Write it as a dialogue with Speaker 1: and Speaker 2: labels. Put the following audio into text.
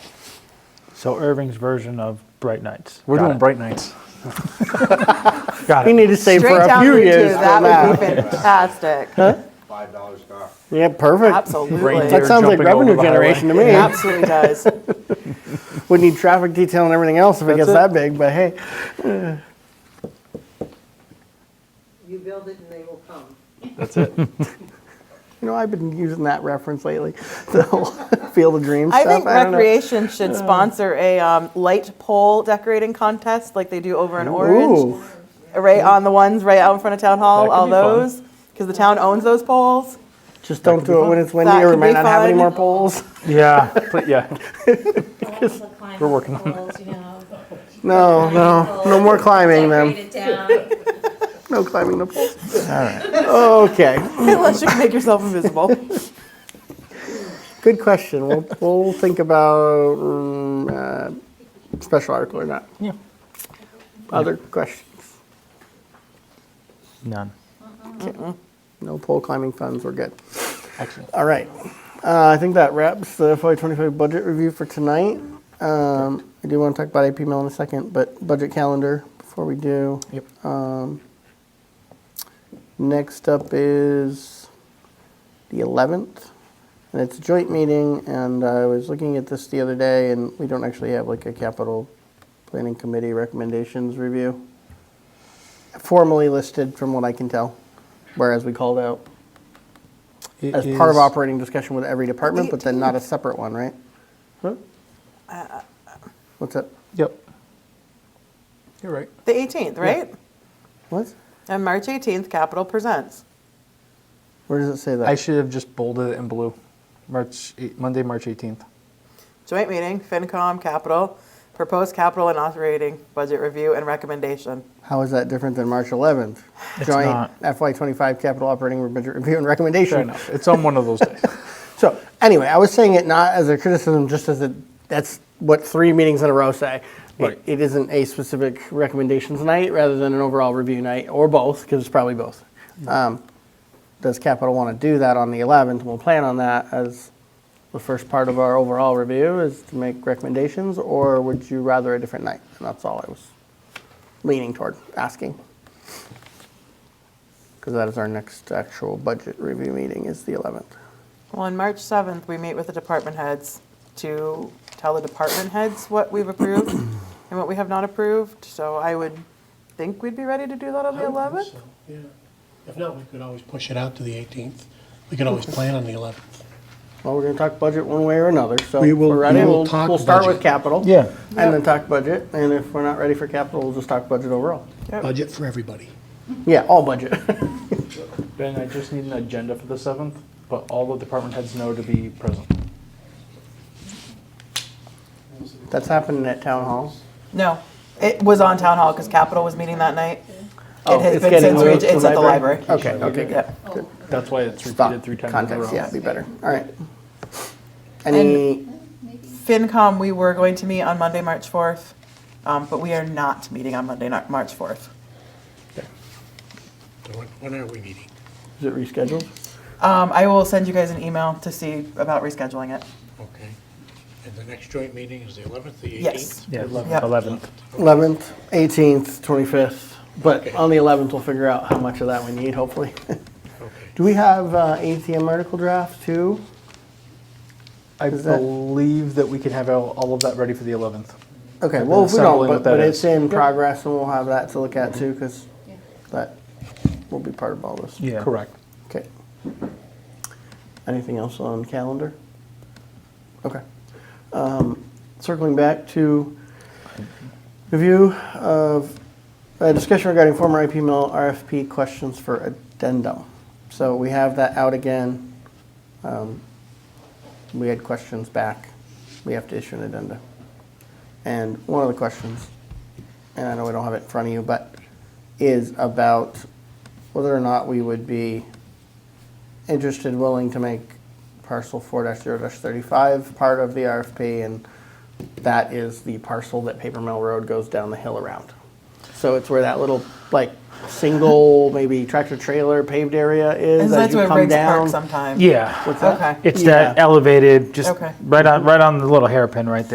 Speaker 1: So Irving's version of Bright Nights.
Speaker 2: We're
Speaker 1: Got
Speaker 2: doing
Speaker 1: it.
Speaker 2: bright nights.
Speaker 1: Got
Speaker 3: We
Speaker 1: it.
Speaker 3: need to save for
Speaker 4: Straight
Speaker 3: a
Speaker 4: down
Speaker 3: few
Speaker 4: Route two,
Speaker 3: years for
Speaker 4: That would
Speaker 3: that.
Speaker 4: be fantastic.
Speaker 5: Five dollars an hour.
Speaker 3: Yeah, perfect. That
Speaker 2: Reindeer.
Speaker 4: Absolutely.
Speaker 3: sounds like
Speaker 2: jumping over
Speaker 3: revenue
Speaker 2: the highway.
Speaker 3: generation to me.
Speaker 4: It absolutely does.
Speaker 3: We need traffic detail and everything else if it gets
Speaker 2: it.
Speaker 3: that big, but hey.
Speaker 6: You build it and they will come.
Speaker 2: That's it.
Speaker 3: You know, I've been using that reference lately, the whole Field of Dreams
Speaker 4: I
Speaker 3: stuff.
Speaker 4: think
Speaker 3: don't know.
Speaker 4: recreation should sponsor a um, light pole decorating contest like they do over in Orange.
Speaker 3: Ooh,
Speaker 4: Right on the ones right out in front of town
Speaker 2: That
Speaker 4: hall,
Speaker 2: could
Speaker 4: all
Speaker 2: be fun.
Speaker 4: those, because the town owns those poles.
Speaker 3: just don't do it when it's windy
Speaker 4: That
Speaker 3: or we
Speaker 4: could
Speaker 3: might
Speaker 4: be
Speaker 3: not have any
Speaker 4: fun.
Speaker 3: more poles.
Speaker 2: Yeah, pl- yeah.
Speaker 7: We're
Speaker 2: working
Speaker 7: on it. You know,
Speaker 3: No, Oh, no, no more climbing
Speaker 7: decorate
Speaker 3: then.
Speaker 7: it down.
Speaker 3: No climbing the poles. All right. Okay.
Speaker 4: Unless you can make yourself invisible.
Speaker 3: Good question. We'll, we'll think about um, uh, special article or not.
Speaker 2: Yeah.
Speaker 3: Other questions?
Speaker 2: None.
Speaker 3: No pole climbing funds. We're good.
Speaker 2: Excellent.
Speaker 3: All right. Uh, I think that wraps the FY25 budget review for tonight. Um, I do want to talk about AP Mill in a second, but budget calendar before we do.
Speaker 2: Yep.
Speaker 3: Next up is the 11th, and it's a joint meeting, and I was looking at this the other day, and we don't actually have like a capital planning committee recommendations review formally listed from what I can tell, whereas we called out
Speaker 2: It
Speaker 3: as part of
Speaker 2: is-
Speaker 3: operating discussion with every department, but then not a separate one, right? What's up?
Speaker 2: Yep. You're right.
Speaker 4: The 18th, right?
Speaker 3: What?
Speaker 4: And March 18th, Capitol presents.
Speaker 3: Where does it say that?
Speaker 2: I should have just bolded it in blue. March eight, Monday, March 18th.
Speaker 4: Joint meeting, FinCom, Capitol, proposed capital and operating budget review and recommendation.
Speaker 3: How is that different than March 11th?
Speaker 1: It's
Speaker 3: Joint
Speaker 1: not.
Speaker 3: FY25 capital operating budget review and recommendation.
Speaker 2: Fair enough. It's on one of those days.
Speaker 3: So anyway, I was saying it not as a criticism, just as a that's what three meetings in a row say. It-
Speaker 2: Right.
Speaker 3: it isn't a specific recommendations night rather than an overall review night or both because it's probably both. Um, does Capital want to do that on the 11th? We'll plan on that as the first part of our overall review is to make recommendations, or would you rather a different night? And that's all I was leaning toward asking. Because that is our next actual budget review meeting is the 11th.
Speaker 4: Well, on March 7th, we meet with the department heads to tell the department heads what we've approved and what we have not approved. So I would think we'd be ready to do that on the 11th.
Speaker 8: So, yeah. If not, we could always push it out to the 18th. We could always plan on the 11th.
Speaker 3: Well, we're gonna talk budget one way or another, so.
Speaker 8: We
Speaker 3: if
Speaker 8: will-
Speaker 3: we're ready,
Speaker 8: we will
Speaker 3: we'll-
Speaker 8: talk
Speaker 3: We'll start with
Speaker 8: budget.
Speaker 3: capital.
Speaker 2: Yeah.
Speaker 3: And then talk budget, and if we're not ready for capital, we'll just talk budget overall.
Speaker 8: Budget for everybody.
Speaker 3: Yeah, all budget.
Speaker 2: Ben, I just need an agenda for the 7th, but all the department heads know to be present.
Speaker 3: That's happening at town hall.
Speaker 4: No, it was on town hall because Capitol was meeting that night.
Speaker 3: Oh,
Speaker 4: It has
Speaker 3: it's
Speaker 4: been
Speaker 3: getting
Speaker 4: since, re-
Speaker 3: moved to
Speaker 4: it's at the library.
Speaker 3: Okay, okay, good.
Speaker 4: Yep.
Speaker 2: That's why it's
Speaker 3: Stop.
Speaker 2: repeated three times in a
Speaker 3: Context,
Speaker 2: row.
Speaker 3: yeah, be better. All right. Any,
Speaker 4: FinCom, we were going to meet on Monday, March 4th, um, but we are not meeting on Monday, not March 4th.
Speaker 8: So When when are we meeting?
Speaker 3: is it rescheduled?
Speaker 4: Um, I will send you guys an email to see about rescheduling it.
Speaker 8: Okay. And the next joint meeting is the 11th, the 18th?
Speaker 4: Yes.
Speaker 1: Yeah,
Speaker 4: Yep.
Speaker 1: 11th.
Speaker 3: 11th, 18th, 25th, but on the 11th, we'll figure out how much of that we need, hopefully.
Speaker 8: Okay.
Speaker 3: Do we have uh, ATM article draft too?
Speaker 2: I
Speaker 3: Is that-
Speaker 2: believe that we can have all all of that ready for the 11th.
Speaker 3: Okay,
Speaker 2: I've
Speaker 3: well,
Speaker 2: been
Speaker 3: if we
Speaker 2: assembling
Speaker 3: don't, but,
Speaker 2: uh, what that
Speaker 3: but
Speaker 2: is.
Speaker 3: it's in
Speaker 2: Yep.
Speaker 3: progress and we'll have that to look at too, because that will be part of all this.
Speaker 1: Yeah.
Speaker 2: Correct.
Speaker 3: Okay. Anything else on calendar? Okay. Um, Circling back to review of, uh, discussion regarding former IP mill RFP questions for addendum. So we have that out again. Um, We had questions back. We have to issue an addenda. And one of the questions, and I know we don't have it in front of you, but is about whether or not we would be interested, willing to make parcel four zero thirty-five part of the RFP, and that is the parcel that Paper Mill Road goes down the hill around. So it's where that little, like, single, maybe tractor trailer paved area is.
Speaker 4: And
Speaker 3: as
Speaker 4: that's
Speaker 3: you
Speaker 4: where
Speaker 3: come
Speaker 4: Riggs
Speaker 3: down.
Speaker 4: Park sometime.
Speaker 1: Yeah.
Speaker 3: What's that?
Speaker 4: Okay.
Speaker 1: It's that
Speaker 3: Yeah.
Speaker 1: elevated, just
Speaker 4: Okay.
Speaker 1: right on, right on the little hairpin right there.